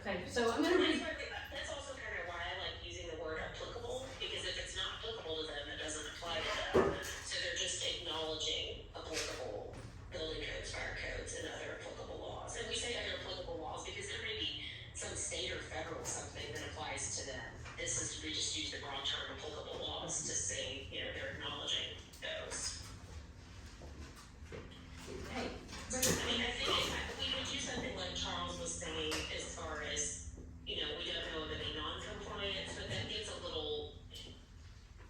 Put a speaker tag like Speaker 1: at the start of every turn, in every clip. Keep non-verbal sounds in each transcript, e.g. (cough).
Speaker 1: Okay, so I'm gonna read,
Speaker 2: That's also kind of why I like using the word applicable, because if it's not applicable to them, it doesn't apply to them. So they're just acknowledging applicable building codes, fire codes, and other applicable laws. And we say other applicable laws because there may be some state or federal something that applies to them. This is, we just use the wrong term, applicable laws, to say, you know, they're acknowledging those.
Speaker 1: hey,
Speaker 2: I mean, I think it- we would do something like Charles was saying as far as, you know, we don't know of any non-compliance, but that gets a little.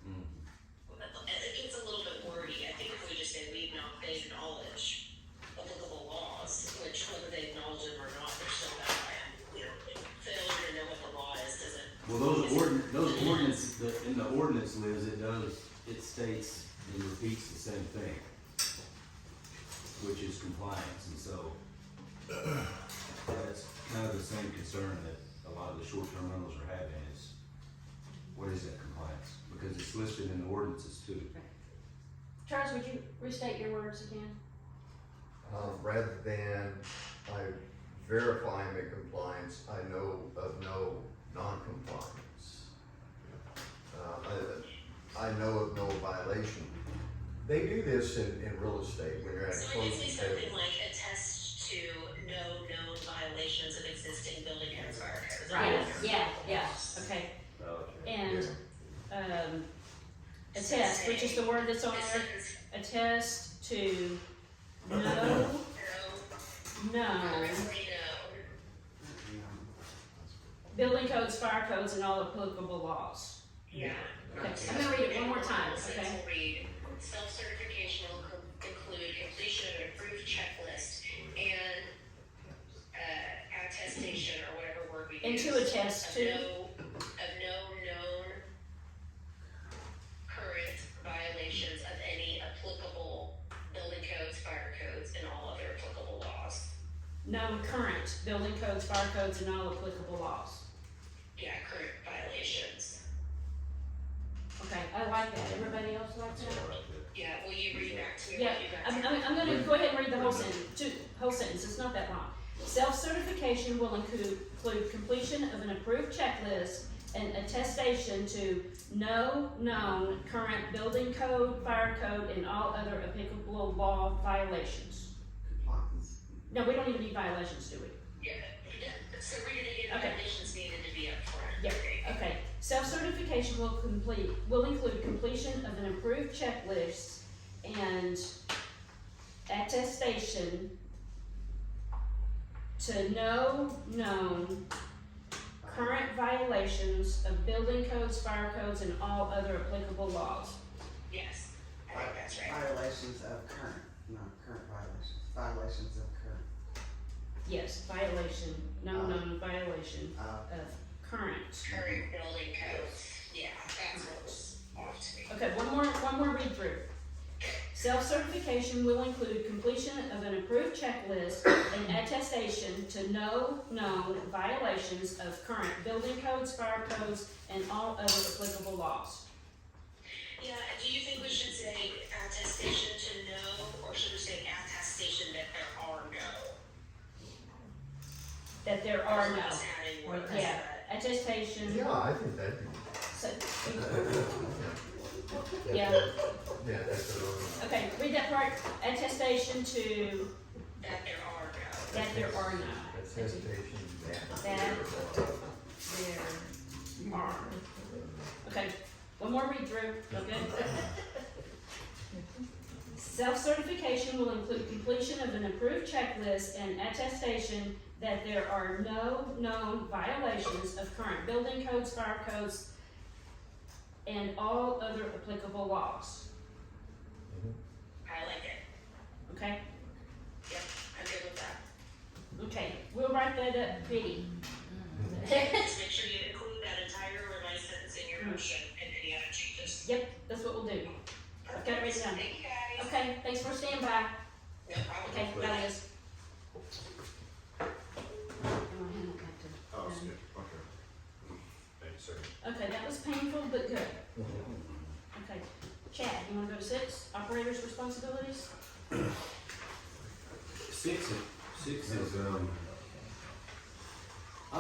Speaker 2: It gets a little bit wordy, I think if we just say we acknowledge, they acknowledge applicable laws, which whether they acknowledge them or not, they're still bound by them. You know, failure to know what the law is doesn't,
Speaker 3: Well, those ordin, those ordinance, the- in the ordinance, Liz, it does, it states and repeats the same thing, which is compliance, and so that's kind of the same concern that a lot of the short-term rentals are having is, what is that compliance? Because it's listed in the ordinances too.
Speaker 1: Charles, would you restate your words again?
Speaker 4: Um, rather than I verify I'm in compliance, I know of no non-compliance. Uh, I, I know of no violation. They do this in, in real estate when you're at a
Speaker 2: so we could say
Speaker 4: closing
Speaker 2: something
Speaker 4: table.
Speaker 2: like attest to no known violations of existing building codes or.
Speaker 1: Yes, Yeah, yeah, okay, and, um, attest, which is the word that's on
Speaker 2: This
Speaker 1: there,
Speaker 2: is
Speaker 1: attest to no, no, building codes, fire codes, and all applicable laws.
Speaker 2: Yeah.
Speaker 1: Okay, I'm gonna read it one more time, okay?
Speaker 2: will read, self-certification will co- include completion of an approved checklist and, uh, attestation or whatever word we
Speaker 1: And
Speaker 2: use.
Speaker 1: to attest
Speaker 2: Of
Speaker 1: to.
Speaker 2: no, of no known current violations of any applicable building codes, fire codes, and all other applicable laws.
Speaker 1: No current building codes, fire codes, and all applicable laws.
Speaker 2: Yeah, current violations.
Speaker 1: Okay, I like that, everybody else likes that?
Speaker 2: Yeah, will you read back to me? what
Speaker 1: Yeah,
Speaker 2: you got
Speaker 1: I'm,
Speaker 2: there?
Speaker 1: I'm, I'm gonna go ahead and read the whole sentence, two, whole sentence, it's not that long. Self-certification will include, include completion of an approved checklist and attestation to no known current building code, fire code, and all other applicable law violations. No, we don't even need violations, do we?
Speaker 2: Yeah, so read it again,
Speaker 1: Okay.
Speaker 2: violations needed to be upfront.
Speaker 1: Yeah, okay. Self-certification will complete, will include completion of an approved checklist and attestation to no known current violations of building codes, fire codes, and all other applicable laws.
Speaker 2: Yes, I think that's right.
Speaker 5: Violations of current, not current violations, violations of current,
Speaker 1: Yes, violation, no known violation
Speaker 5: uh,
Speaker 1: of current.
Speaker 2: Current building codes, yeah, that's what's off to me.
Speaker 1: Okay, one more, one more read through. Self-certification will include completion of an approved checklist and attestation to no known violations of current building codes, fire codes, and all other applicable laws.
Speaker 2: Yeah, and do you think we should say attestation to no, or should we say attestation that there are no?
Speaker 1: That there are no,
Speaker 2: Just adding words
Speaker 1: yeah,
Speaker 2: that-
Speaker 1: attestation,
Speaker 4: Yeah, I think that'd be,
Speaker 1: so,
Speaker 4: yeah,
Speaker 1: yeah,
Speaker 4: that's the wrong.
Speaker 1: okay, read that part, attestation to
Speaker 2: That there are no.
Speaker 1: that there are no,
Speaker 4: Attestation that.
Speaker 1: That- there are. Okay, one more read through, okay? Self-certification will include completion of an approved checklist and attestation that there are no known violations of current building codes, fire codes, and all other applicable laws,
Speaker 2: I like it,
Speaker 1: okay?
Speaker 2: I'm good with
Speaker 1: (laughs)
Speaker 2: that.
Speaker 1: Okay, we'll write that up, Biddy.
Speaker 2: Just make sure you include that entire revised sentence in your motion and any other changes.
Speaker 1: Yep, that's what we'll do. Okay, written down.
Speaker 2: Thank you guys.
Speaker 1: Okay, thanks for standing by.
Speaker 2: No
Speaker 1: Okay,
Speaker 2: problem.
Speaker 1: guys.
Speaker 6: Oh, skip, okay. Thank you, sir.
Speaker 1: Okay, that was painful but good. Okay, Chad, you wanna go to six, operator's responsibilities?
Speaker 3: Six, six is, um,